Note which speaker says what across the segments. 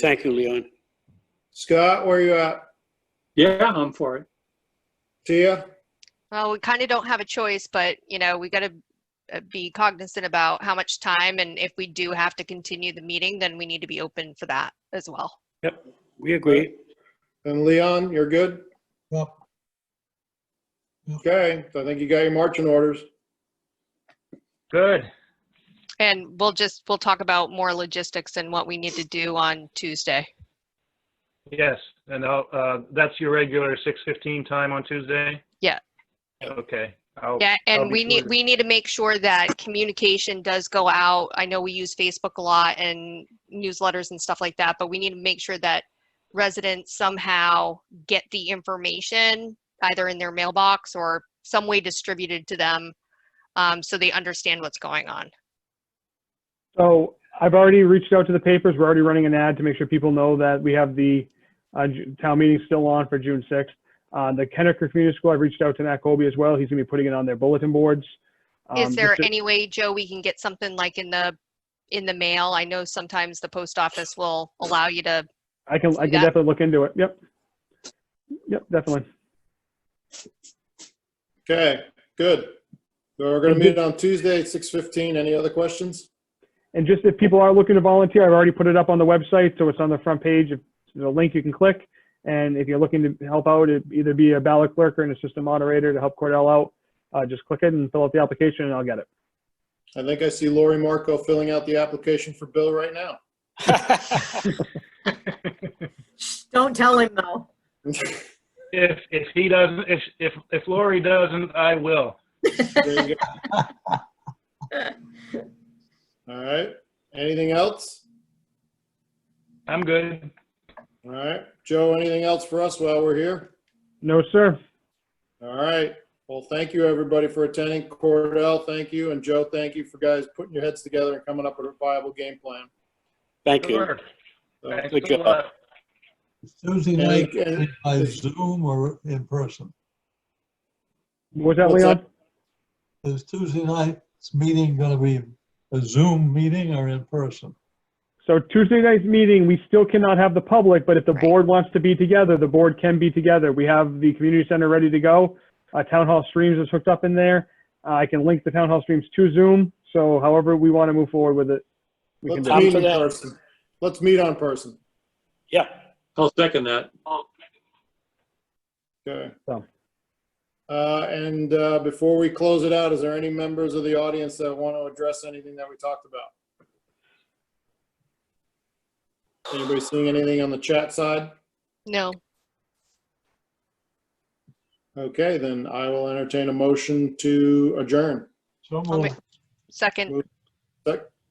Speaker 1: Thank you, Leon.
Speaker 2: Scott, where you at?
Speaker 3: Yeah, I'm for it.
Speaker 2: Tia?
Speaker 4: Well, we kind of don't have a choice, but you know, we got to be cognizant about how much time and if we do have to continue the meeting, then we need to be open for that as well.
Speaker 1: We agree.
Speaker 2: And Leon, you're good?
Speaker 5: Yep. Yep.
Speaker 2: Okay, so I think you got your marching orders.
Speaker 6: Good.
Speaker 4: And we'll just, we'll talk about more logistics and what we need to do on Tuesday.
Speaker 6: Yes, and I'll, uh, that's your regular six fifteen time on Tuesday?
Speaker 4: Yeah.
Speaker 6: Okay.
Speaker 7: Oh,
Speaker 6: I'll-
Speaker 4: Yeah,
Speaker 6: I'll
Speaker 4: and
Speaker 6: be
Speaker 4: we need,
Speaker 6: sure.
Speaker 4: we need to make sure that communication does go out. I know we use Facebook a lot and newsletters and stuff like that, but we need to make sure that residents somehow get the information either in their mailbox or some way distributed to them um, so they understand what's going on.
Speaker 7: So I've already reached out to the papers. We're already running an ad to make sure people know that we have the uh, Ju- town meeting still on for June 6th. Uh, The Kennecker Community School, I've reached out to Matt Colby as well. He's going to be putting it on their bulletin boards. Um,
Speaker 4: Is there
Speaker 7: just to-
Speaker 4: any way, Joe, we can get something like in the, in the mail? I know sometimes the post office will allow you to
Speaker 7: I can, I can
Speaker 4: Yeah.
Speaker 7: definitely look into it. Yep. Yep, definitely.
Speaker 2: Okay, good. So We're gonna meet on Tuesday at six fifteen. Any other questions?
Speaker 7: And just if people are looking to volunteer, I've already put it up on the website, so it's on the front page. If There's a link you can click. And if you're looking to help out, it'd either be a ballot clerk or an assistant moderator to help Cordell out, uh, just click it and fill out the application and I'll get it.
Speaker 2: I think I see Lori Marco filling out the application for Bill right now.
Speaker 8: Don't tell him though.
Speaker 6: If, if he doesn't, if, if, if Lori doesn't, I will.
Speaker 2: There you go. All right, anything else?
Speaker 6: I'm good.
Speaker 2: All right, Joe, anything else for us while we're here?
Speaker 7: No, sir.
Speaker 2: All right. Well, thank you, everybody, for attending. Cordell, thank you. And Joe, thank you for guys putting your heads together and coming up with a viable game plan.
Speaker 1: Thank
Speaker 6: Good
Speaker 1: you.
Speaker 6: work.
Speaker 2: So,
Speaker 6: Thanks
Speaker 1: Good
Speaker 6: a
Speaker 1: job.
Speaker 6: lot.
Speaker 5: Tuesday
Speaker 2: Yeah,
Speaker 5: night,
Speaker 2: you can-
Speaker 5: by Zoom or in person.
Speaker 7: What was that,
Speaker 2: What's
Speaker 7: Leon?
Speaker 2: that?
Speaker 5: Is Tuesday night's meeting going to be a Zoom meeting or in person?
Speaker 7: So Tuesday night's meeting, we still cannot have the public, but if the
Speaker 4: Right.
Speaker 7: board wants to be together, the board can be together. We have the community center ready to go. Uh, town hall streams is hooked up in there. Uh, I can link the town hall streams to Zoom. So however we want to move forward with it, we can
Speaker 2: Let's
Speaker 7: do.
Speaker 1: do it.
Speaker 2: meet in
Speaker 1: After that.
Speaker 2: person. Let's meet on person.
Speaker 1: Yeah.
Speaker 3: I'll second that.
Speaker 2: Okay.
Speaker 7: So.
Speaker 2: Uh, and, uh, before we close it out, is there any members of the audience that want to address anything that we talked about? Anybody seeing anything on the chat side?
Speaker 4: know
Speaker 2: Okay, then I will entertain a motion to adjourn.
Speaker 5: So
Speaker 4: I'll make-
Speaker 5: moved.
Speaker 4: second.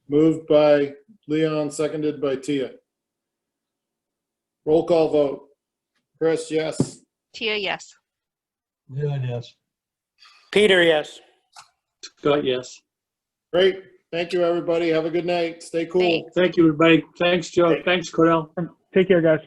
Speaker 2: Moved by Leon, seconded by Tia. Roll call vote. Chris, yes.
Speaker 4: Tia, yes.
Speaker 5: Yeah, yes.
Speaker 1: Peter, yes.
Speaker 3: Scott, yes.
Speaker 2: Great. Thank you, everybody. Have a good night. Stay cool.
Speaker 4: Thanks.
Speaker 3: Thank you, everybody. Thanks, Joe. Thanks, Cordell.
Speaker 7: Take care, guys.